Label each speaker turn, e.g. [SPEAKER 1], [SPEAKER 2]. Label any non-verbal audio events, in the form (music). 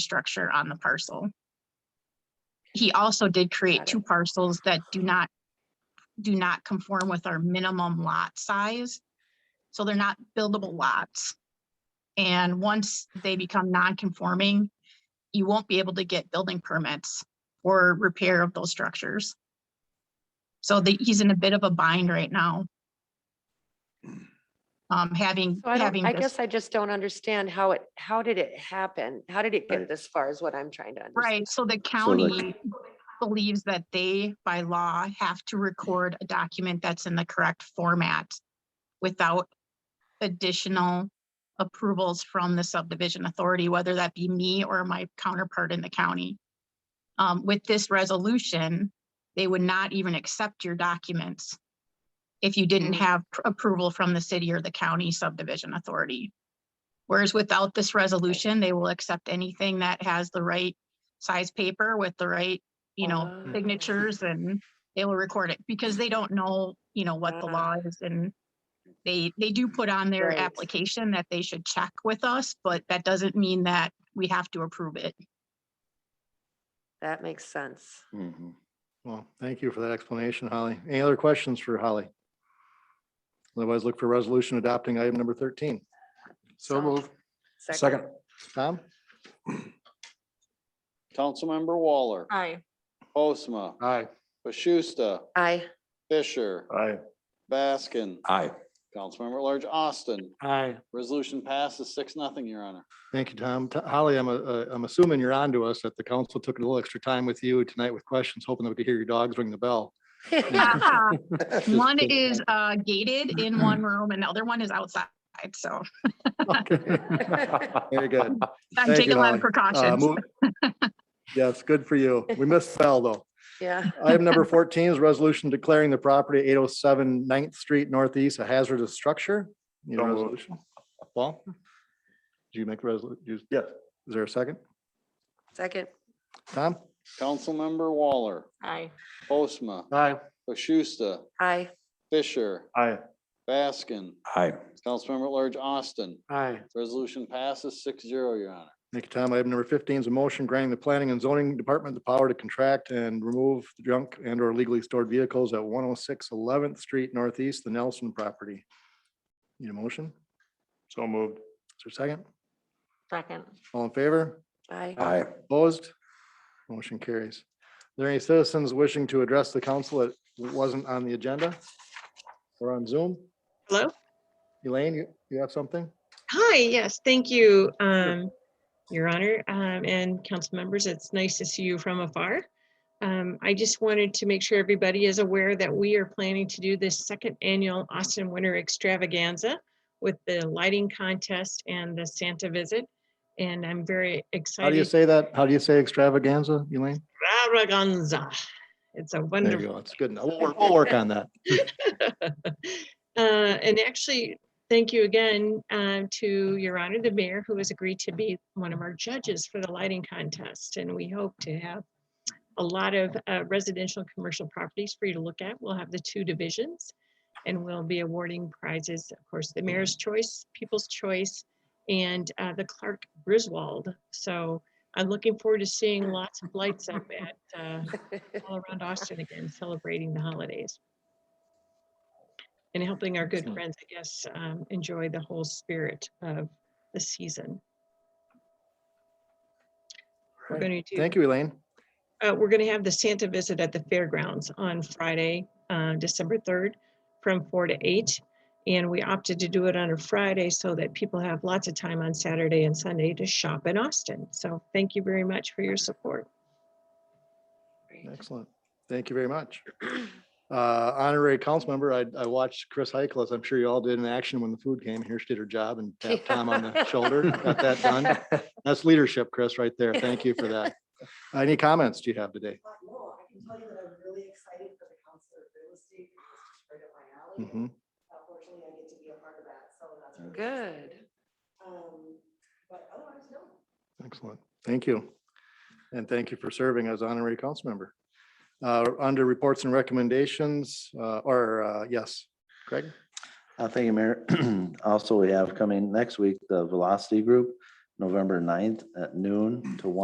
[SPEAKER 1] structure on the parcel. He also did create
[SPEAKER 2] Got it.
[SPEAKER 1] two parcels that do not, do not conform with our minimum lot size. So they're not buildable lots. And once they become non-conforming, you won't be able to get building permits or repair of those structures. So that he's in a bit of a bind right now. Um, having,
[SPEAKER 2] So I
[SPEAKER 1] having
[SPEAKER 2] don't, I
[SPEAKER 1] this.
[SPEAKER 2] guess I just don't understand how it, how did it happen? How did it get
[SPEAKER 3] Right.
[SPEAKER 2] this far is what I'm trying to understand.
[SPEAKER 1] Right, so the
[SPEAKER 3] So like-
[SPEAKER 1] county believes that they, by law, have to record a document that's in the correct format without additional approvals from the subdivision authority, whether that be me or my counterpart in the county. Um, with this resolution, they would not even accept your documents if you didn't
[SPEAKER 2] Mm.
[SPEAKER 1] have pr- approval from the city or the county subdivision authority. Whereas without this resolution, they will accept anything that has the right size paper with the right, you know,
[SPEAKER 2] Ah.
[SPEAKER 1] signatures and they will record it because they don't know, you know, what the
[SPEAKER 2] Ah.
[SPEAKER 1] law is and they, they do put on their
[SPEAKER 2] Right.
[SPEAKER 1] application that they should check with us, but that doesn't mean that we have to approve it.
[SPEAKER 2] That makes sense.
[SPEAKER 3] Mhm.
[SPEAKER 4] Well, thank you for that explanation, Holly. Any other questions for Holly? Otherwise, look for resolution adopting item number thirteen.
[SPEAKER 2] So-
[SPEAKER 3] So move.
[SPEAKER 2] Second.
[SPEAKER 4] Tom?
[SPEAKER 5] Councilmember Waller,
[SPEAKER 6] Aye.
[SPEAKER 1] (laughs)
[SPEAKER 5] Postma,
[SPEAKER 4] Aye.
[SPEAKER 5] Bashusta,
[SPEAKER 2] Aye,
[SPEAKER 5] Fisher,
[SPEAKER 4] Aye.
[SPEAKER 5] Baskin,
[SPEAKER 3] Aye.
[SPEAKER 5] Councilmember at Large Austin.
[SPEAKER 3] Aye.
[SPEAKER 5] Resolution passes six, nothing, Your Honor.
[SPEAKER 4] Thank you, Tom. T- Holly, I'm, uh, uh, I'm assuming you're on to us, that the council took a little extra time with you tonight with questions, hoping that we could hear your dogs ring the bell. (laughs)
[SPEAKER 1] One is uh, gated
[SPEAKER 4] (clears throat)
[SPEAKER 1] in one room and the other one is outside, so
[SPEAKER 4] Okay. Very good.
[SPEAKER 1] I'm
[SPEAKER 4] Thank you,
[SPEAKER 1] taking a lot of
[SPEAKER 4] Holly. Uh,
[SPEAKER 1] precautions.
[SPEAKER 4] move- Yes, good for you. We missed Bell, though.
[SPEAKER 2] (laughs) yeah.
[SPEAKER 4] Item number fourteen is resolution declaring the property 807 9th Street Northeast a hazardous structure. Need a
[SPEAKER 3] So moved.
[SPEAKER 4] resolution? Paul? Do you make resolution? Yes. Is there a second?
[SPEAKER 2] Second,
[SPEAKER 4] Tom?
[SPEAKER 5] Councilmember Waller,
[SPEAKER 6] Aye.
[SPEAKER 5] Postma,
[SPEAKER 4] Aye.
[SPEAKER 5] Bashusta,
[SPEAKER 2] aye,
[SPEAKER 5] Fisher,
[SPEAKER 4] Aye.
[SPEAKER 5] Baskin,
[SPEAKER 3] Aye.
[SPEAKER 5] Councilmember at Large Austin.
[SPEAKER 4] Aye.
[SPEAKER 5] Resolution passes six zero, Your Honor.
[SPEAKER 4] Thank you, Tom. Item number fifteen is a motion granting the planning and zoning department the power to contract and remove the junk and or legally stored vehicles at one oh six eleventh street northeast, the Nelson property. Need a motion? So moved. Is there a second?
[SPEAKER 6] Second.
[SPEAKER 4] All in favor?
[SPEAKER 2] aye. (laughs)
[SPEAKER 3] Aye.
[SPEAKER 4] Opposed? Motion carries. Are there any citizens wishing to address the council that wasn't on the agenda? Or on Zoom?
[SPEAKER 7] Hello?
[SPEAKER 4] Elaine, you, you have something?
[SPEAKER 7] Hi, yes, thank you, um, Your Honor, um, and council members. It's nice to see you from afar. Um, I just wanted to make sure everybody is aware that we are planning to do this second annual Austin Winter Extravaganza with the lighting contest and the Santa visit. And I'm very
[SPEAKER 4] How do you
[SPEAKER 7] excited.
[SPEAKER 4] say that? How do you say extravaganza, Elaine?
[SPEAKER 7] Extravaganza. It's a
[SPEAKER 4] There you
[SPEAKER 7] wonderful
[SPEAKER 4] go. It's good. enough. We'll, work- we'll work on that.
[SPEAKER 7] (laughs) Uh, And actually, thank you again um, to Your Honor, the mayor, who has agreed to be one of our judges for the lighting contest. And we hope to have a lot of uh, residential and commercial properties for you to look at. We'll have the two divisions. And we'll be awarding prizes, of course,
[SPEAKER 4] Mm-hmm.
[SPEAKER 7] the mayor's choice, people's choice, and uh, the Clark Griswold. So I'm looking forward to seeing lots of lights
[SPEAKER 4] (laughs)
[SPEAKER 7] up at, uh, all around Austin again, celebrating the holidays and helping our good
[SPEAKER 4] Excellent.
[SPEAKER 7] friends, I guess, um, enjoy the whole spirit of the season. We're
[SPEAKER 4] Right.
[SPEAKER 7] going to do,
[SPEAKER 4] Thank you, Elaine.
[SPEAKER 7] uh, we're going to have the Santa visit at the fairgrounds on Friday, uh, December 3rd, from 4 to 8. And we opted to do it on a Friday so that people have lots of time on Saturday and Sunday to shop in Austin. So thank you very much for your support.
[SPEAKER 4] Excellent. Thank you very much. (clears throat) Uh, Honorary council member, I, I watched Chris Heichel, as I'm sure you all did in action when the food came here. She did her job and tapped Tom on
[SPEAKER 7] (laughs)
[SPEAKER 4] the shoulder. Got that done. That's leadership, Chris, right there. Thank you for that. Uh, Any comments do you have today?
[SPEAKER 8] Uh, No, I can tell you that I'm really excited for the Council of Real Estate. because It's just right up my alley. and
[SPEAKER 4] Mhm.
[SPEAKER 8] Unfortunately, I get to be a part of that, so that's. really
[SPEAKER 2] (laughs) Good.
[SPEAKER 8] exciting. Um, But otherwise, no.
[SPEAKER 4] Mm-hmm. Excellent. Thank you. And thank you for serving as honorary council member. Uh, Under reports and recommendations, uh, or, uh, yes, Craig?
[SPEAKER 9] (clears throat) Uh, Thank you, Mayor. Also, we have coming next week, the Velocity Group November 9th at noon to one.